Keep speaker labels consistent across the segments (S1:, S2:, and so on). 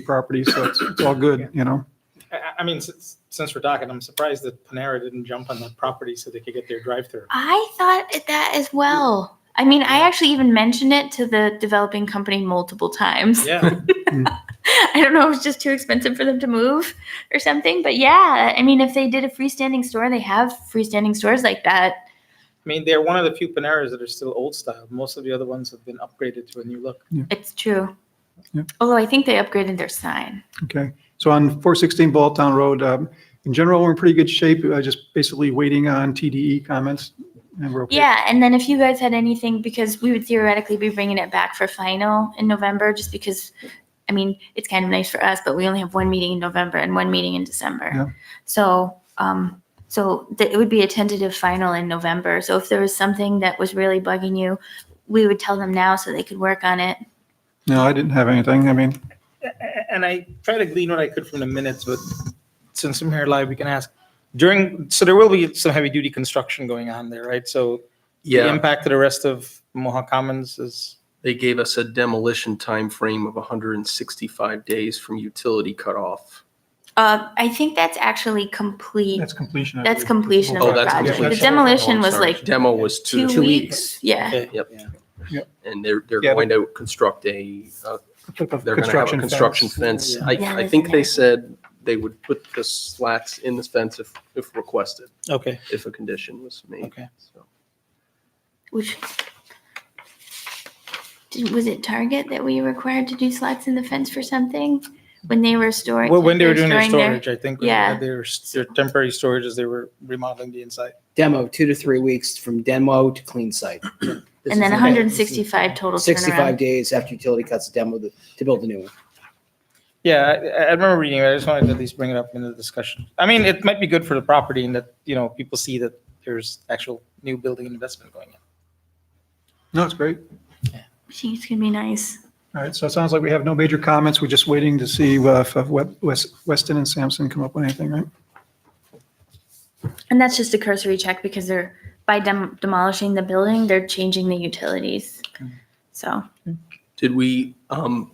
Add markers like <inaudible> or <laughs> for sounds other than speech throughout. S1: property, so it's, it's all good, you know?
S2: I, I- I mean, since, since we're talking, I'm surprised that Panera didn't jump on the property so they could get their
S3: <laughs>
S2: drive-through.
S3: I thought it- that as well. I mean, I actually even mentioned it to the developing company multiple times.
S2: Yeah,
S3: <laughs> I don't know, it was just too expensive for them to move or something. But yeah, I mean, if they did a freestanding store, they have freestanding stores like that.
S2: I mean, they're one of the few Paneras that are still old style. Most of the other ones have been upgraded to a new look.
S3: It's true.
S1: Yeah.
S3: Although I think they upgraded their sign.
S1: Okay. So on four sixteen Ball Town Road, um, in general, we're in pretty good shape. Uh, just basically waiting on TDE comments and we're okay.
S3: Yeah, and then if you guys had anything, because we would theoretically be bringing it back for final in November, just because, I mean, it's kind of nice for us, but we only have one meeting in November and one meeting in December.
S1: Yeah.
S3: So, um, so th- it would be a tentative final in November. So if there was something that was really bugging you, we would tell them now so they could work on it.
S1: No, I didn't have anything. I mean,
S2: A- a- And I tried to glean what I could from the minutes, but since I'm here live, we can ask. During, so there will be some heavy-duty construction going on there, right? So the
S4: Yeah,
S2: impact to the rest of Mohawk Commons is,
S4: they gave us a demolition time frame of 165 days from utility cutoff.
S3: Uh, I think that's actually complete.
S1: that's completion. I
S3: That's
S1: believe.
S3: completion of
S4: Oh,
S3: the
S4: that's
S3: project. The
S4: completion.
S3: demolition was
S4: Sorry,
S3: like
S4: Demo was
S3: two
S4: two,
S3: weeks. Yeah.
S2: okay.
S4: Yep.
S2: Yeah.
S4: and they're, they're
S1: Yeah,
S4: going to construct a, uh, they're going to have a
S1: Construction
S4: construction
S1: fence.
S4: fence. I,
S3: Yeah,
S4: I
S3: there's
S4: think
S3: an
S4: they
S3: ad.
S4: said they would put the slats in this fence if, if requested,
S2: Okay,
S4: if a condition was made.
S2: okay.
S4: So
S3: Which did, was it Target that we required to do slots in the fence for something when they were storing?
S2: Well, when they were doing their
S3: storing their-
S2: storage, I think, when they
S3: Yeah.
S2: had their, their temporary storage as they were remodeling the inside.
S5: demo, two to three weeks from demo to clean site. <clears throat> This
S3: and then
S5: is-
S3: 165 total
S5: 65
S3: turnaround.
S5: days after utility cuts demo to to build a new one.
S2: Yeah, I, I remember reading it. I just wanted to at least bring it up in the discussion. I mean, it might be good for the property in that, you know, people see that there's actual new building investment going in.
S1: No, it's great.
S3: I think it's gonna be nice.
S1: All right. So it sounds like we have no major comments. We're just waiting to see uh, if uh, Web- West- Weston and Sampson come up with anything, right?
S3: And that's just a cursory check because they're by dem- demolishing the building, they're changing the utilities. So
S4: Did we, um,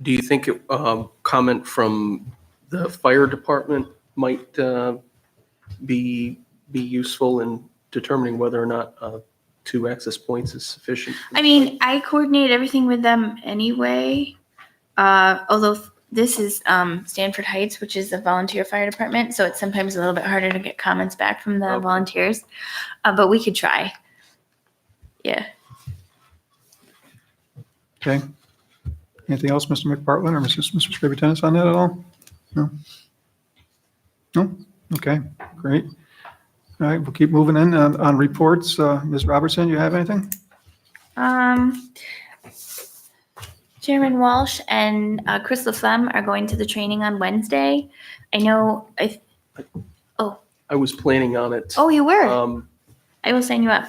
S4: do you think, um, comment from the fire department might, uh, be, be useful in determining whether or not, uh, two access points is sufficient?
S3: I mean, I coordinate everything with them anyway. Uh, although f- this is um, Stanford Heights, which is a volunteer fire department, so it's sometimes a little bit harder to get comments back from the
S4: Okay.
S3: volunteers. Uh, but we could try. Yeah.
S1: Okay. Anything else, Mr. McPartlin or Mrs. Mr. Scrivby Tennis on that at all? No? No? Okay, great. All right, we'll keep moving in. On on reports, uh, Ms. Robertson, you have anything?
S3: Um, Chairman Walsh and uh, Chris LaFlemme are going to the training on Wednesday. I know. I,
S4: I was planning on it.
S3: oh, you were.
S4: Um,
S3: I will sign you up.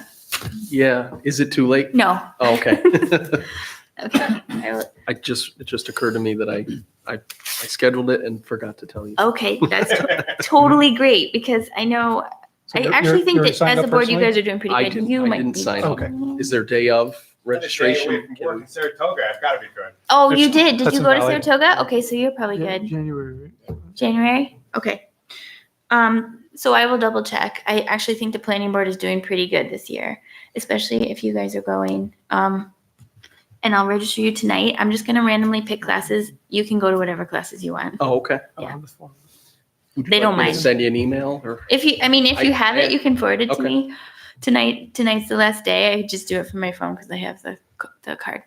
S4: yeah, is it too late?
S3: No.
S4: Oh, okay. <laughs>
S3: <laughs> Okay. I will,
S4: I just, it just occurred to me that I, I, I scheduled it and forgot to tell you.
S3: okay. That's to- totally great because I know
S1: So
S3: I
S1: you're-
S3: actually
S1: you're-
S3: think
S1: you're
S3: that
S1: signed
S3: as
S1: up
S3: a board, you
S1: personally?
S3: guys are doing pretty
S4: I
S3: good.
S4: didn't-
S3: You
S4: I
S3: might
S4: didn't
S3: be-
S4: sign
S1: up. Okay.
S3: Oh.
S4: Is there day of
S6: I'm gonna stay away
S4: registration?
S6: from work in Saratoga, I've got to be good.
S3: Oh,
S1: There's-
S3: you did. Did
S1: that's
S3: you
S1: in
S3: go to
S1: Valley.
S3: Saratoga? Okay, so you're probably good.
S1: January.
S3: January? Okay. Um, so I will double check. I actually think the planning board is doing pretty good this year, especially if you guys are going. Um, and I'll register you tonight. I'm just gonna randomly pick classes. You can go to whatever classes you want.
S4: Oh, okay.
S3: Yeah.
S4: Would you
S3: They
S4: like
S3: don't
S4: me to
S3: mind.
S4: Send you an email or?
S3: If you, I mean, if you
S4: I-
S3: have
S4: I-
S3: it, you can forward it to
S4: okay.
S3: me. Tonight, tonight's the last day. I just do it from my phone because I have the c- the card.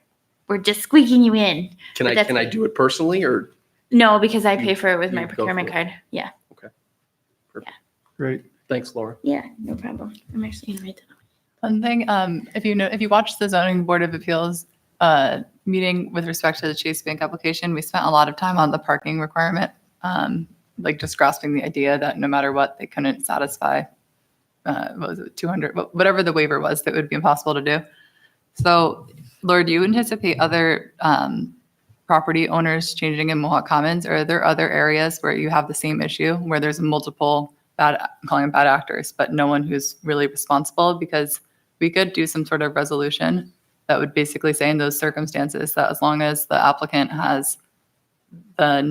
S3: We're just squeaking you in.
S4: Can
S3: But
S4: I,
S3: that's
S4: can I
S3: me.
S4: do it personally or?
S3: No, because I pay for it with my
S4: you go
S3: procurement
S4: for it.
S3: card. Yeah.
S1: Great.
S4: Thanks, Laura.
S3: Yeah, no problem. I'm actually gonna write that.
S7: One thing, um, if you know, if you watched the zoning board of appeals, uh, meeting with respect to the Chase Bank application, we spent a lot of time on the parking requirement. Um, like just grasping the idea that no matter what, they couldn't satisfy, uh, what was it, two hundred, whatever the waiver was, that would be impossible to do. So Laura, do you anticipate other, um, property owners changing in Mohawk Commons? Or are there other areas where you have the same issue, where there's multiple bad, I'm calling them bad actors, but no one who's really responsible? Because we could do some sort of resolution that would basically say in those circumstances that as long as the applicant has the